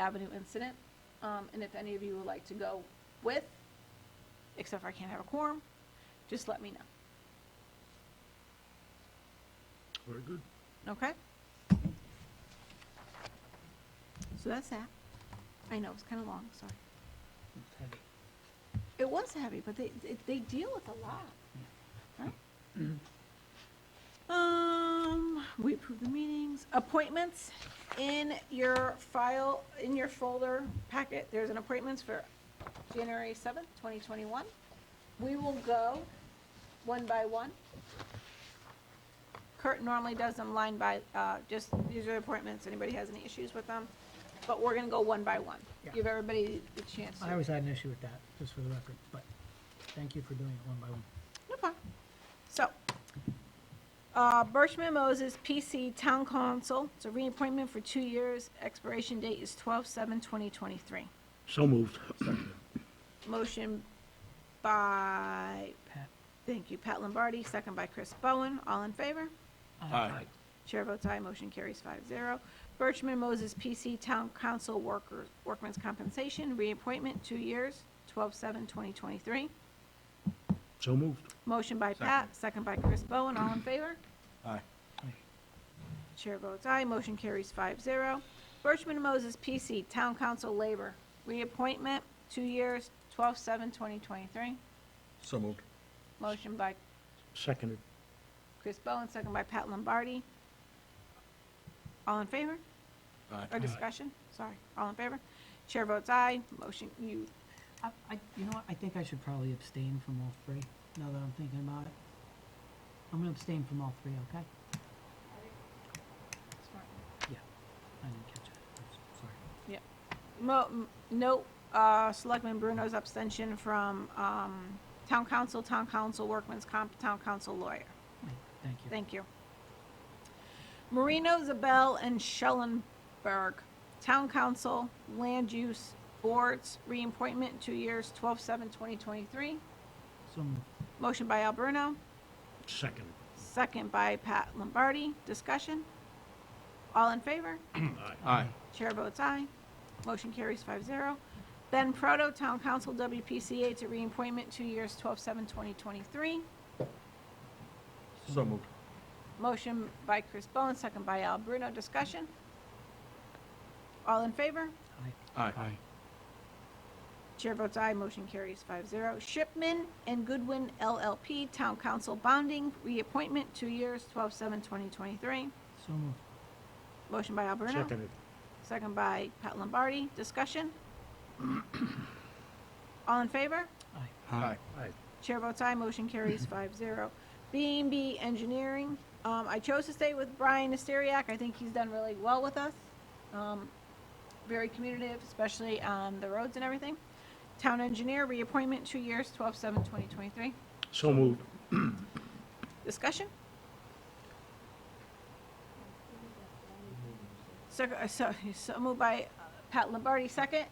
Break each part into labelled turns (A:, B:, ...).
A: Avenue incident. Um, and if any of you would like to go with, except for I can't have a quorum, just let me know,
B: Very good.
A: okay? So that's that. I know, it's kinda long, sorry. It was heavy, but they, they, they deal with a lot. right? Um, we approve the meetings, appointments, in your file, in your folder packet, there's an appointments for January seventh, twenty twenty-one. We will go one by one. Kurt normally does them line by, uh, just, these are appointments, anybody has any issues with them, but we're gonna go one by one.
C: Yeah.
A: Give everybody the chance to.
C: I always had an issue with that, just for the record, but thank you for doing it one by one.
A: No problem. So, uh, Birchman Moses, PC Town Council, it's a reappointment for two years, expiration date is twelve seven twenty twenty-three.
B: So moved.
A: Motion by,
C: Pat?
A: thank you, Pat Lombardi, second by Chris Bowen, all in favor?
C: Uh,
B: Aye.
A: Chair votes aye, motion carries five zero. Birchman Moses, PC Town Council Worker, Workman's Compensation, reappointment, two years, twelve seven twenty twenty-three.
B: So moved.
A: Motion by Pat, second by Chris Bowen, all in favor?
B: Aye.
A: Chair votes aye, motion carries five zero. Birchman and Moses, PC, Town Council Labor, reappointment, two years, twelve seven twenty twenty-three.
B: So moved.
A: Motion by
B: Seconded.
A: Chris Bowen, second by Pat Lombardi. All in favor? Or discussion? Sorry, all in favor? Chair votes aye, motion, you,
C: I, I, you know what, I think I should probably abstain from all three, now that I'm thinking about it. I'm gonna abstain from all three, okay? Yeah, I didn't catch it, I'm s- sorry.
A: mo, m- note, uh, Selectman Bruno's abstention from, um, Town Council, Town Council Workman's Comp, Town Council Lawyer.
C: Wait, Thank you.
A: Thank you. Marino, Zabel, and Schellenberg, Town Council, Land Use Boards, reappointment, two years, 12-7-2023.
C: So moved.
A: Motion by Al Bruno,
B: Seconded.
A: second by Pat Lombardi. Discussion? All in favor?
B: Aye.
A: Chair votes aye. Motion carries 5-0. Ben Proto, Town Council, WPCA, to reappointment, two years, 12-7-2023.
B: So moved.
A: Motion by Chris Bowen, second by Al Bruno. Discussion? All in favor?
C: Aye.
B: Aye. Aye.
A: Chair votes aye, motion carries five zero. Shipman and Goodwin LLP, Town Council Bonding, reappointment, two years, 12-7-2023.
C: So moved.
A: Motion by Al Bruno,
B: Seconded.
A: second by Pat Lombardi. Discussion? All in favor?
C: Aye.
B: Aye.
A: Chair votes aye, motion carries five zero. B and B Engineering, um, I chose to stay with Brian Asteriak, I think he's done really well with us. Um, very communicative, especially on the roads and everything. Town Engineer, reappointment, two years, 12-7-2023.
B: So moved.
A: Discussion? Sec- uh, So, so moved by uh, Pat Lombardi, second.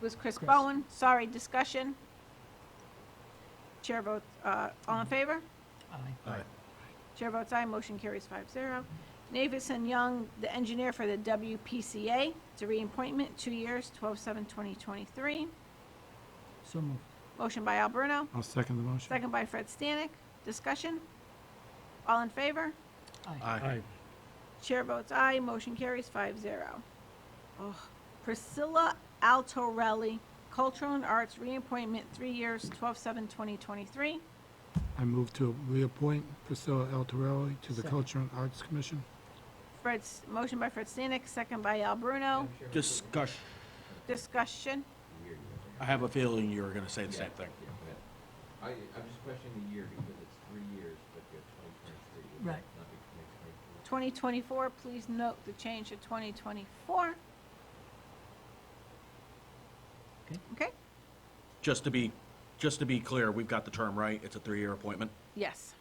A: Was Chris
C: Chris.
A: Bowen, sorry, discussion. Chair votes, uh, all in favor?
C: Aye.
B: Aye.
A: Chair votes aye, motion carries five zero. Navis and Young, the engineer for the WPCA, it's a reappointment, two years, 12-7-2023.
C: So moved.
A: Motion by Al Bruno,
D: I'll second the motion.
A: second by Fred Stanek, discussion? All in favor?
C: Aye.
A: Chair votes aye, motion carries five zero. Priscilla Altorelli, Cultural and Arts, reappointment, three years, 12-7-2023.
D: I move to reappoint Priscilla L. Torelli to the
C: Second.
D: Culture and Arts Commission.
A: Fred's, motion by Fred Stanek, second by Al Bruno,
E: Discussion.
A: discussion?
E: I have a feeling you were gonna say the same thing.
F: Yeah, but I, I'm just questioning the year because it's three years, but you have twenty twenty-three.
C: Right.
F: Not
A: Twenty
F: twenty twenty-four.
A: twenty-four, please note the change to twenty twenty-four, okay?
E: Just to be, just to be clear, we've got the term right. It's a three-year appointment.
A: Yes.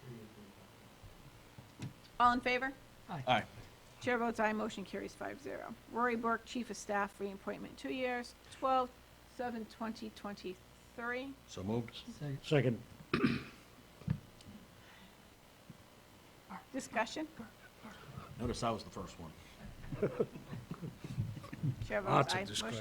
A: All in favor?
E: Aye.
A: Chair votes aye, motion carries five zero. Rory Burke, Chief of Staff, reappointment, two years, twelve, seven, twenty twenty-three.
E: So moved.
C: Second.
B: Second.
A: Discussion?
E: Notice I was the first one.
A: Chair
B: Lots
A: votes
B: of
A: aye,
B: discussion.
A: motion